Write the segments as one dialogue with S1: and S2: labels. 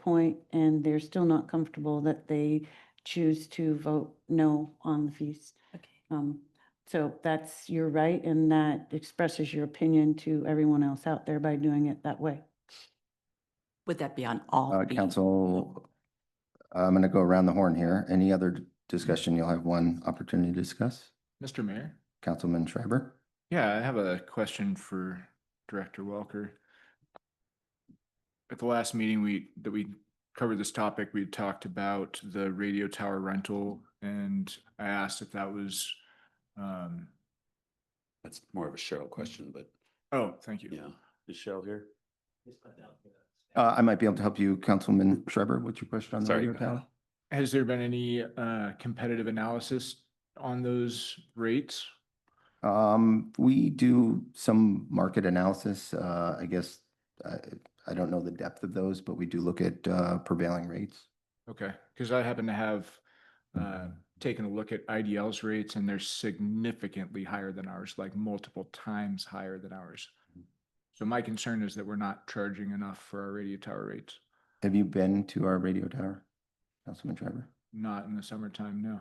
S1: point and they're still not comfortable that they choose to vote no on the fees.
S2: Okay.
S1: Um, so that's your right and that expresses your opinion to everyone else out there by doing it that way.
S2: Would that be on all?
S3: Uh,
S2: fees?
S3: council, I'm going to go around the horn here. Any other d- discussion? You'll have one opportunity to discuss.
S4: Mr. Mayor?
S3: Councilman Schreiber?
S4: Yeah, I have a question for Director Welker. At the last meeting, we, that we covered this topic, we talked about the radio tower rental and I asked if that was, um,
S5: That's more of a Cheryl question, but
S4: oh, thank you.
S5: yeah, is Cheryl here?
S3: Uh, I might be able to help you, Councilman Schreiber. What's your question on the
S5: Sorry.
S3: radio tower?
S4: Has there been any, uh, competitive analysis on those rates?
S3: Um, we do some market analysis, uh, I guess, I, I don't know the depth of those, but we do look at, uh, prevailing rates.
S4: Okay, because I happen to have, uh, taken a look at IDL's rates and they're significantly higher than ours, like multiple times higher than ours. So my concern is that we're not charging enough for our radio tower rates,
S3: Have you been to our radio tower, Councilman Schreiber?
S4: not in the summertime, no.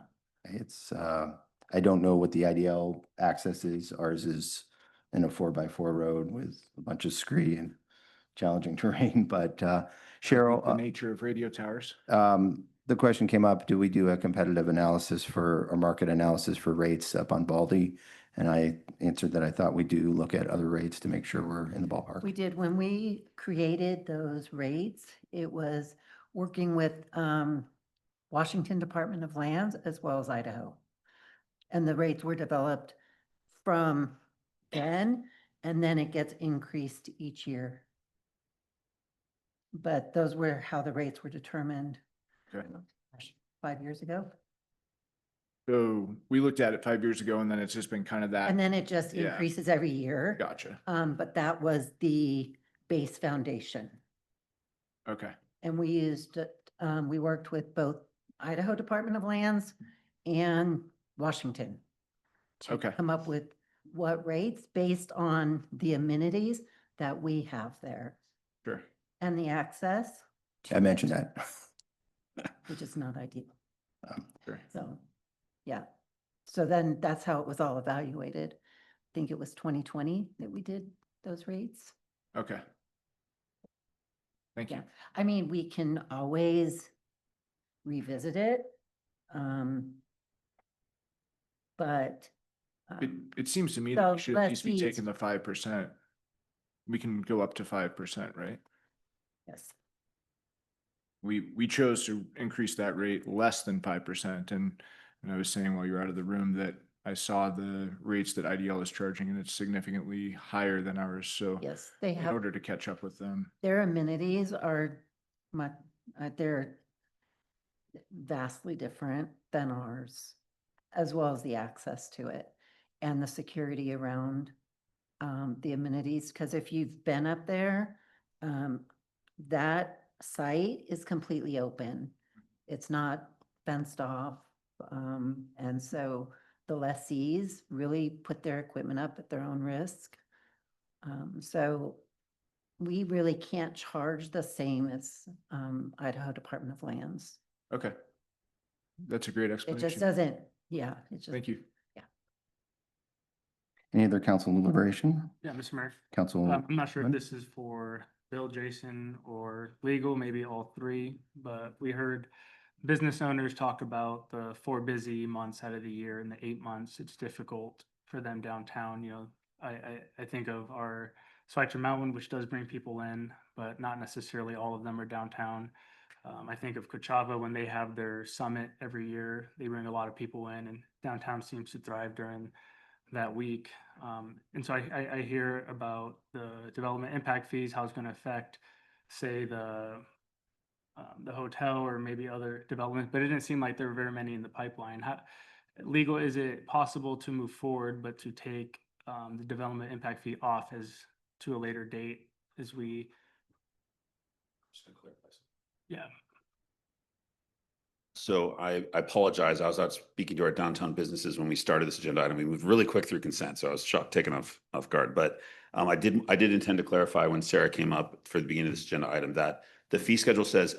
S3: It's, uh, I don't know what the IDL access is. Ours is in a four by four road with a bunch of scree and challenging terrain, but, uh, Cheryl.
S4: The
S3: uh,
S4: nature of radio towers.
S3: um, the question came up, do we do a competitive analysis for, or market analysis for rates up on Baldy? And I answered that I thought we do look at other rates to make sure we're in the
S6: We
S3: ballpark.
S6: did, when we created those rates, it was working with um, Washington Department of Lands as well as Idaho. And the rates were developed from then, and then it gets increased each year. But those were how the rates were determined
S4: Okay.
S6: gosh, five years ago.
S4: So we looked at it five years ago and then it's just been kind of
S6: And
S4: that,
S6: then it just
S4: Uh, Yeah.
S6: increases every year.
S4: gotcha,
S6: Um, But that was the base foundation.
S4: okay.
S6: And we used, it, um, we worked with both Idaho Department of Lands and Washington. to
S4: Okay.
S6: Come up with what rates based on the amenities that we have there
S4: Sure.
S6: and the access,
S3: I mentioned that.
S6: which is not ideal.
S3: Um,
S4: Oh, Sure.
S6: So, yeah. So then that's how it was all evaluated. I think it was twenty twenty that we did those rates.
S4: Okay. Thank you.
S6: Yeah, I mean, we can always revisit it. um, But.
S4: It,
S6: um,
S4: it seems to me that we
S6: So
S4: should at
S6: let's
S4: least be
S6: see,
S4: taking the five percent. We can go up to five percent, right?
S6: Yes,
S4: We, we chose to increase that rate less than five percent and, and I was saying while you were out of the room that I saw the rates that IDL is charging and it's significantly higher than ours, so
S6: yes, they
S4: in
S6: have,
S4: order to catch up with them,
S6: their amenities are much, uh, they're vastly different than ours, as well as the access to it and the security around um, the amenities, because if you've been up there, um, that site is completely open. It's not fenced off. Um, and so the lessees really put their equipment up at their own risk. Um, so we really can't charge the same as, um, Idaho Department of Lands.
S4: okay. That's a great
S6: It just
S4: explanation.
S6: doesn't, yeah, it just.
S4: Thank you.
S3: Any other council deliberation?
S7: Yeah, Mr. Mayor,
S3: Council,
S7: Um, I'm not sure if
S3: Lynn?
S7: this is for Bill, Jason, or legal, maybe all three, but we heard business owners talk about the four busy months out of the year and the eight months, it's difficult for them downtown, you know. I, I, I think of our Switzer Mountain, which does bring people in, but not necessarily all of them are downtown. Um, I think of Coachella when they have their summit every year, they bring a lot of people in and downtown seems to thrive during that week. Um, and so I, I, I hear about the development impact fees, how it's gonna affect, say, the um, the hotel or maybe other developments, but it didn't seem like there were very many in the pipeline. How legal is it possible to move forward, but to take um, the development impact fee off as to a later date as we, yeah.
S5: So I, I apologize. I was out speaking to our downtown businesses when we started this agenda item. We moved really quick through consent, so I was shocked, taken off, off guard. But um, I did, I did intend to clarify when Sarah came up for the beginning of this agenda item that the fee schedule says